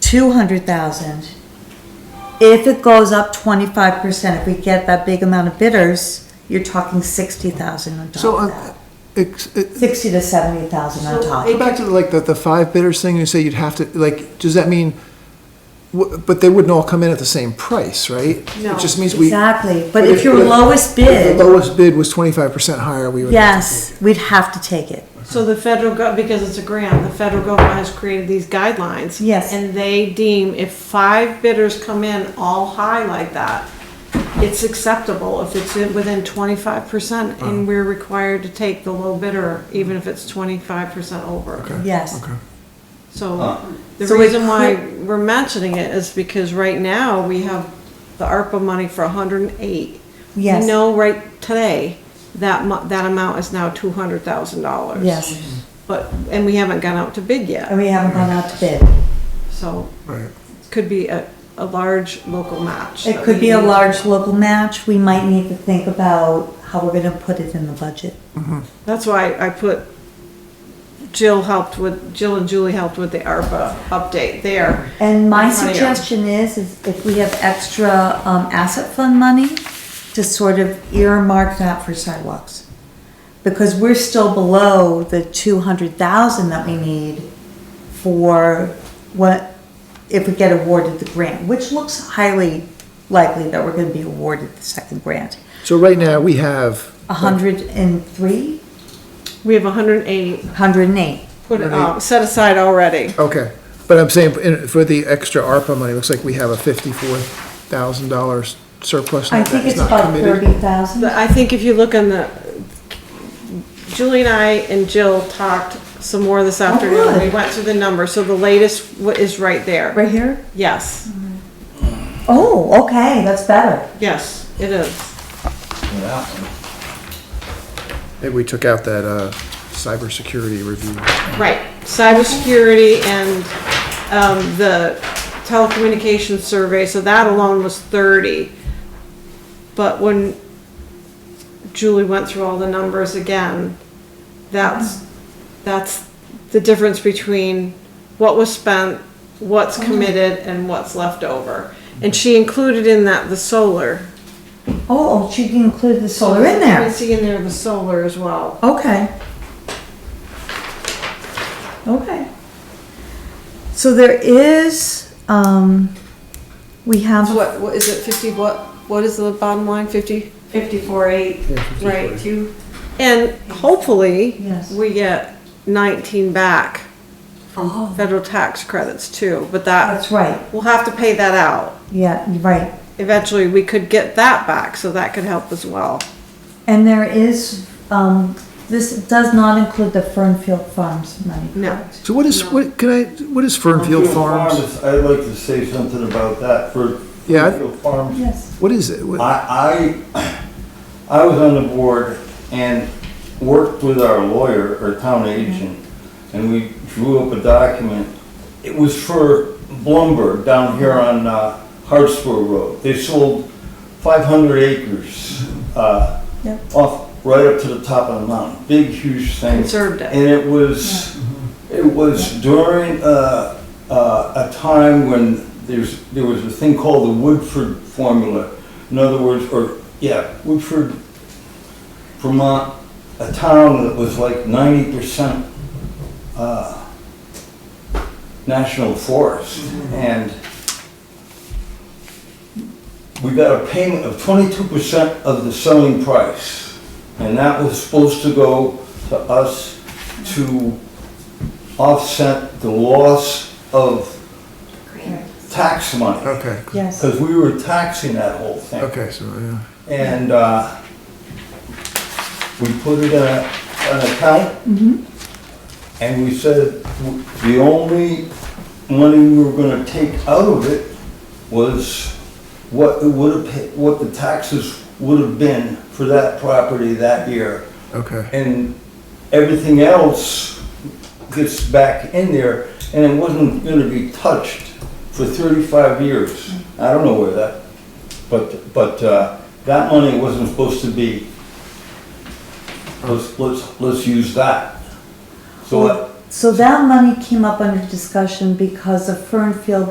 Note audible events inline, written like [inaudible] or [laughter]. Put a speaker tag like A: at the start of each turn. A: two hundred thousand. If it goes up twenty-five percent, if we get that big amount of bidders, you're talking sixty thousand on
B: So,
A: top of
B: uh,
A: that.
B: ex- it-
A: Sixty to seventy thousand on top.
B: go back to like the, the five bidders thing, you say you'd have to, like, does that mean, wh- but they wouldn't all come in at the same price, right?
C: No.
B: It just means we.
A: Exactly, but if your
B: but-
A: lowest
B: if
A: bid,
B: The lowest bid was twenty-five percent higher, we would.
A: yes, we'd have to take it.
C: So the federal gov, because it's a grant, the federal government has created these guidelines.
A: Yes.
C: And they deem if five bidders come in all high like that, it's acceptable if it's in- within twenty-five percent, and we're required to take the low bidder, even if it's twenty-five percent over.
B: Okay,
A: Yes.
B: Okay.
C: So the
A: So we
C: reason why
A: could-
C: we're mentioning it is because right now, we have the ARPA money for hundred and eight.
A: Yes.
C: We know right today, that mu, that amount is now two hundred thousand dollars.
A: Yes,
C: But, and we haven't gone out to bid
A: and
C: yet,
A: we haven't gone out to bid.
C: so
B: Right.
C: could be a, a large local match.
A: It
C: that
A: could
C: we
A: be a
C: need.
A: large local match. We might need to think about how we're gonna put it in the budget.
C: That's why I put, Jill helped with, Jill and Julie helped with the ARPA update there.
A: And my
C: That's funny.
A: suggestion is, is if we have extra, um, asset fund money, to sort of earmark that for sidewalks. Because we're still below the two hundred thousand that we need for what, if we get awarded the grant, which looks highly likely that we're gonna be awarded the second grant.
B: So right now, we have.
A: A hundred and three,
C: We have hundred and eight,
A: hundred and eight.
C: put, uh, set aside already.
B: Okay, but I'm saying, in- for the extra ARPA money, it looks like we have a fifty-four thousand dollars surplus.
A: I
B: that
A: think
B: is
A: it's
B: not
A: about
B: committed.
A: thirty thousand.
C: But I think if you look on the, Julie and I and Jill talked some more this afternoon.
A: Oh, good.
C: We went through the numbers, so the latest wa- is right there.
A: Right here?
C: Yes,
A: Oh, okay, that's better.
C: yes, it is.
B: Maybe we took out that, uh, cybersecurity review.
C: Right, cybersecurity and, um, the telecommunications survey, so that alone was thirty. But when Julie went through all the numbers again, that's, that's the difference between what was spent, what's
A: Oh.
C: committed, and what's left over. And she included in that the solar.
A: Oh, oh, she included the solar in
C: I
A: there.
C: see in there the solar as well.
A: Okay. Okay. So there is, um, we have,
C: What, what, is it fifty, what, what is the bottom line, fifty?
D: Fifty-four eight,
B: Yeah, 54.
D: right, two,
C: And hopefully,
A: Yes.
C: we get nineteen back from federal tax credits too, but that,
A: that's right,
C: we'll have to pay that out.
A: yeah, you're right.
C: Eventually, we could get that back, so that could help as well.
A: And there is, um, this does not include the Fernfield Farms money.
C: No.
A: correct?
B: So what is, what, can I, what is Fernfield Farms?
E: Farms, I'd like to say something about that for
B: Yeah.
E: Fernfield Farms.
A: Yes.
B: What is it? What-
E: I, I, [clears throat] I was on the board and worked with our lawyer or town
B: Mm-hmm.
E: agent, and we drew up a document. It was for lumber down here
B: Mm-hmm.
E: on uh, Hartsville Road. They sold five hundred acres, uh,
A: Yep.
E: off, right up to the top of the mountain. Big, huge thing.
C: Conserved it.
E: And it was, it was during, uh, uh, a time when there's, there was a thing called the Woodford formula. In other words, or, yeah, Woodford, Vermont, a town that was like ninety percent, uh, national forest. And we got a payment of twenty-two percent of the selling price. And that was supposed to go to us to offset the loss of tax money.
B: Okay,
A: Yes.
E: Because we were taxing that whole thing.
B: okay, so, yeah.
E: And uh, we put it in a- an account. And we said, w- the only money we were gonna take out of it was what it would have, what the taxes would have been for that property that year.
B: okay.
E: And everything else gets back in there, and it wasn't gonna be touched for thirty-five years. I don't know where that, but, but, uh, that money wasn't supposed to be, let's, let's, let's use that. So, uh,
A: So that money came up under discussion because of Fernfield